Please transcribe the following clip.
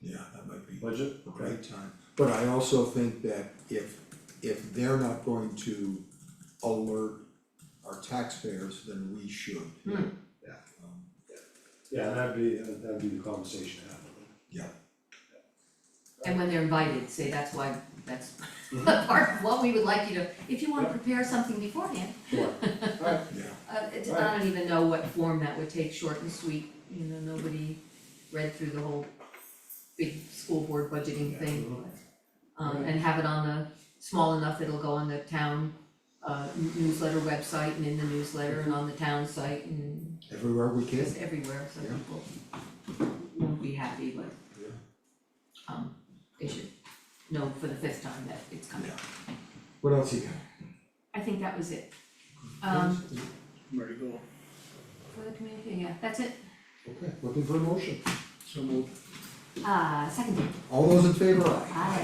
yeah, that might be budget, a okay, great time. But I also think that if, if they're not going to alert our taxpayers, then we should. Yeah. Um, yeah, that'd be, uh, that'd be the conversation happening. And when they're invited, say that's why, that's part of what we would like you to, if you wanna Yeah. prepare something beforehand. Sure, alright, yeah, Uh, it, I don't even know what form that would take, short and sweet, you know, nobody read through the whole big school board budgeting Yeah, thing. mhm. Um, and have it on the, small enough that it'll go on the town uh n- newsletter website and in the newsletter and on the town site and everywhere we can, just everywhere, so Yeah. people won't be happy, but Yeah. um, they should know for the fifth time that it's coming. yeah. What else you got? I think that was it. Um, Ready to go. for the community, yeah, that's it. Okay, looking for a motion. So moved. Uh, second, All those in favor, aye? aye.